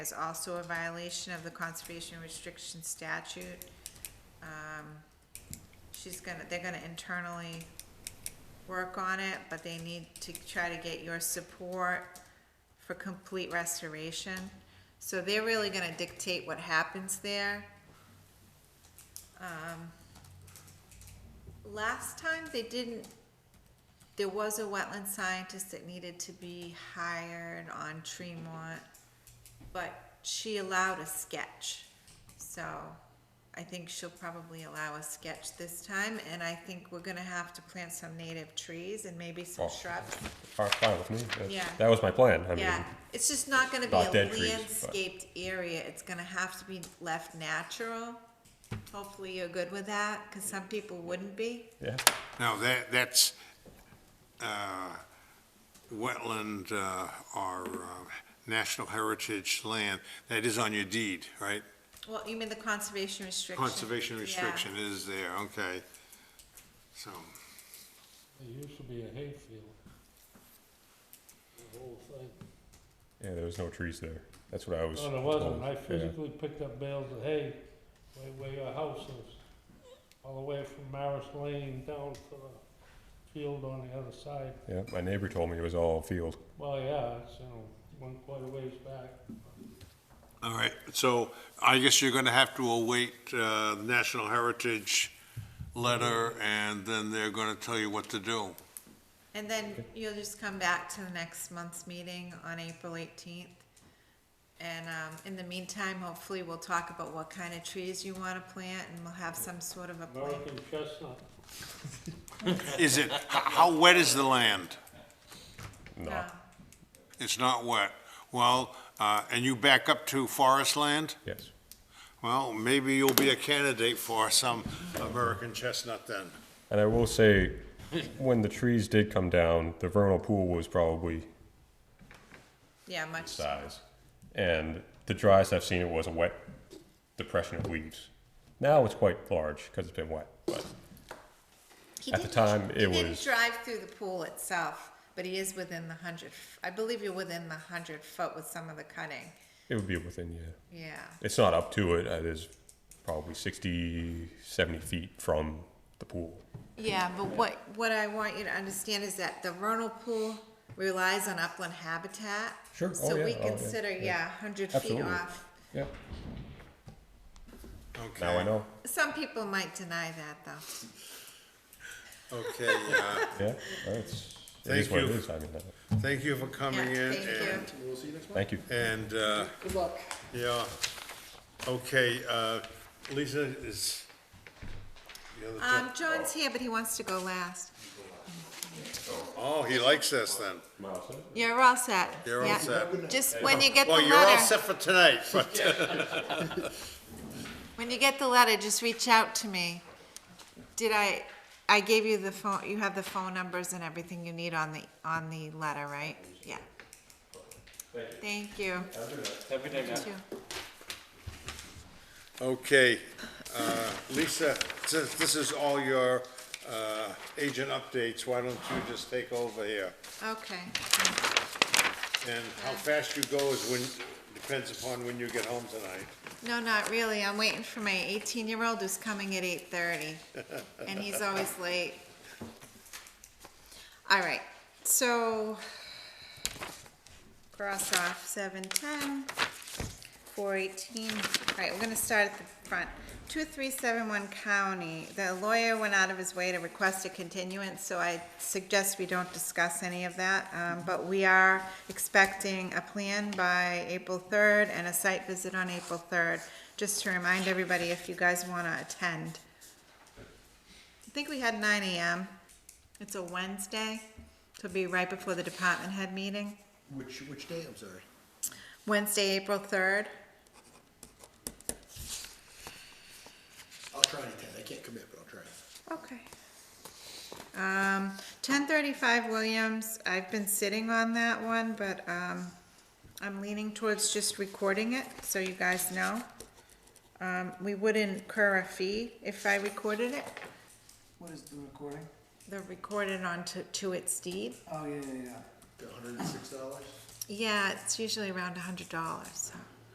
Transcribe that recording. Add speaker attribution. Speaker 1: is also a violation of the conservation restriction statute. Um, She's gonna, they're gonna internally work on it, but they need to try to get your support for complete restoration. So they're really gonna dictate what happens there. Um, Last time, they didn't there was a wetland scientist that needed to be hired on Tremont, but she allowed a sketch. So I think she'll probably allow a sketch this time, and I think we're gonna have to plant some native trees and maybe some
Speaker 2: Oh.
Speaker 1: shrubs.
Speaker 2: Fine, fine with me. That's-
Speaker 1: Yeah.
Speaker 2: That was my plan. I mean,
Speaker 1: Yeah, it's just not gonna be
Speaker 2: Not
Speaker 1: a
Speaker 2: dead trees, but-
Speaker 1: landscaped area, it's gonna have to be left natural. Hopefully you're good with that, cause some people wouldn't be.
Speaker 2: yeah.
Speaker 3: Now, that, that's, uh, wetland, uh, or, uh, national heritage land, that is on your deed, right?
Speaker 1: Well, you mean the conservation restriction?
Speaker 3: Conservation
Speaker 1: Yeah.
Speaker 3: restriction is there, okay. So,
Speaker 4: It used to be a hayfield. The whole thing.
Speaker 2: Yeah, there was no trees there. That's what I was.
Speaker 4: No, Oh, there wasn't.
Speaker 2: told.
Speaker 4: I
Speaker 2: Yeah.
Speaker 4: physically picked up bales of hay way where your house is. All the way from Maris Lane down to the field on the other side.
Speaker 2: Yeah, my neighbor told me it was all field.
Speaker 4: Well, yeah, it's, you know, went quite a ways back.
Speaker 3: all right, so I guess you're gonna have to await, uh, the national heritage letter, and then they're gonna tell you what to do.
Speaker 1: And then you'll just come back to the next month's meeting on April eighteenth. And, um, in the meantime, hopefully we'll talk about what kind of trees you wanna plant and we'll have some sort of a plan.
Speaker 4: American chestnut.
Speaker 3: Is it, h- how wet is the land?
Speaker 2: No.
Speaker 1: Uh,
Speaker 3: It's not wet. Well, uh, and you back up to forest land?
Speaker 2: Yes.
Speaker 3: Well, maybe you'll be a candidate for some American chestnut then.
Speaker 2: And I will say, when the trees did come down, the vernal pool was probably
Speaker 1: Yeah, much,
Speaker 2: size. And the driest I've seen it was a wet depression of leaves. Now it's quite large because it's been wet. But
Speaker 1: he
Speaker 2: At the
Speaker 1: didn't-
Speaker 2: time,
Speaker 1: he
Speaker 2: it
Speaker 1: didn't
Speaker 2: was-
Speaker 1: Drive through the pool itself, but he is within the hundred, f- I believe you're within the hundred foot with some of the cutting,
Speaker 2: it would be within, yeah.
Speaker 1: yeah.
Speaker 2: It's not up to it. It is probably 60, 70 feet from the pool.
Speaker 1: Yeah, but what, what I want you to understand is that the vernal pool relies on upland habitat.
Speaker 2: Sure. Oh,
Speaker 1: So
Speaker 2: yeah.
Speaker 1: we
Speaker 2: Oh, yeah.
Speaker 1: consider,
Speaker 2: Yeah.
Speaker 1: yeah, hundred feet
Speaker 2: Absolutely.
Speaker 1: off.
Speaker 2: Yeah.
Speaker 3: Okay.
Speaker 2: Now I know.
Speaker 1: Some people might deny that, though.
Speaker 3: Okay, uh,
Speaker 2: Yeah. That's, it
Speaker 3: Thank
Speaker 2: is what it
Speaker 3: you.
Speaker 2: is. I mean, that-
Speaker 3: thank you for coming
Speaker 1: Yeah,
Speaker 3: in
Speaker 1: thank you.
Speaker 3: and,
Speaker 2: thank you.
Speaker 3: and, uh,
Speaker 5: Good luck.
Speaker 3: yeah. Okay, uh, Lisa is. the other
Speaker 1: Um,
Speaker 3: gen-
Speaker 1: John's here, but he wants to go last.
Speaker 3: Oh, he likes us then.
Speaker 1: You're all set.
Speaker 3: You're all
Speaker 1: Yeah.
Speaker 3: set.
Speaker 1: Just when you get the
Speaker 3: Well, you're all
Speaker 1: letter,
Speaker 3: set for tonight, but
Speaker 1: when you get the letter, just reach out to me. Did I, I gave you the phone, you have the phone numbers and everything you need on the, on the letter, right? Yeah. Thank you. Have a good night.
Speaker 3: Okay, uh, Lisa, since this is all your uh, agent updates, why don't you just take over here?
Speaker 1: Okay,
Speaker 3: And how fast you go is when, depends upon when you get home tonight.
Speaker 1: no, not really, I'm waiting for my eighteen-year-old who's coming at eight-thirty, and he's always late. All right, so, cross off seven-ten, four-eighteen, all right, we're gonna start at the front. Two-three-seven-one County, the lawyer went out of his way to request a continuance, so I suggest we don't discuss any of that, um, but we are expecting a plan by April third and a site visit on April third, just to remind everybody if you guys wanna attend. I think we had nine AM. It's a Wednesday, so it'll be right before the department head meeting.
Speaker 5: Which, which day, I'm sorry?
Speaker 1: Wednesday, April third.
Speaker 5: I'll try to attend, I can't commit, but I'll try.
Speaker 1: Okay. Um, ten thirty-five Williams, I've been sitting on that one, but, um, I'm leaning towards just recording it, so you guys know. Um, we would incur a fee if I recorded it.
Speaker 6: What is the recording?
Speaker 1: They're recorded onto, to its deed.
Speaker 6: Oh, yeah, yeah, yeah.
Speaker 5: hundred and six dollars?
Speaker 1: Yeah, it's usually around a hundred dollars, so.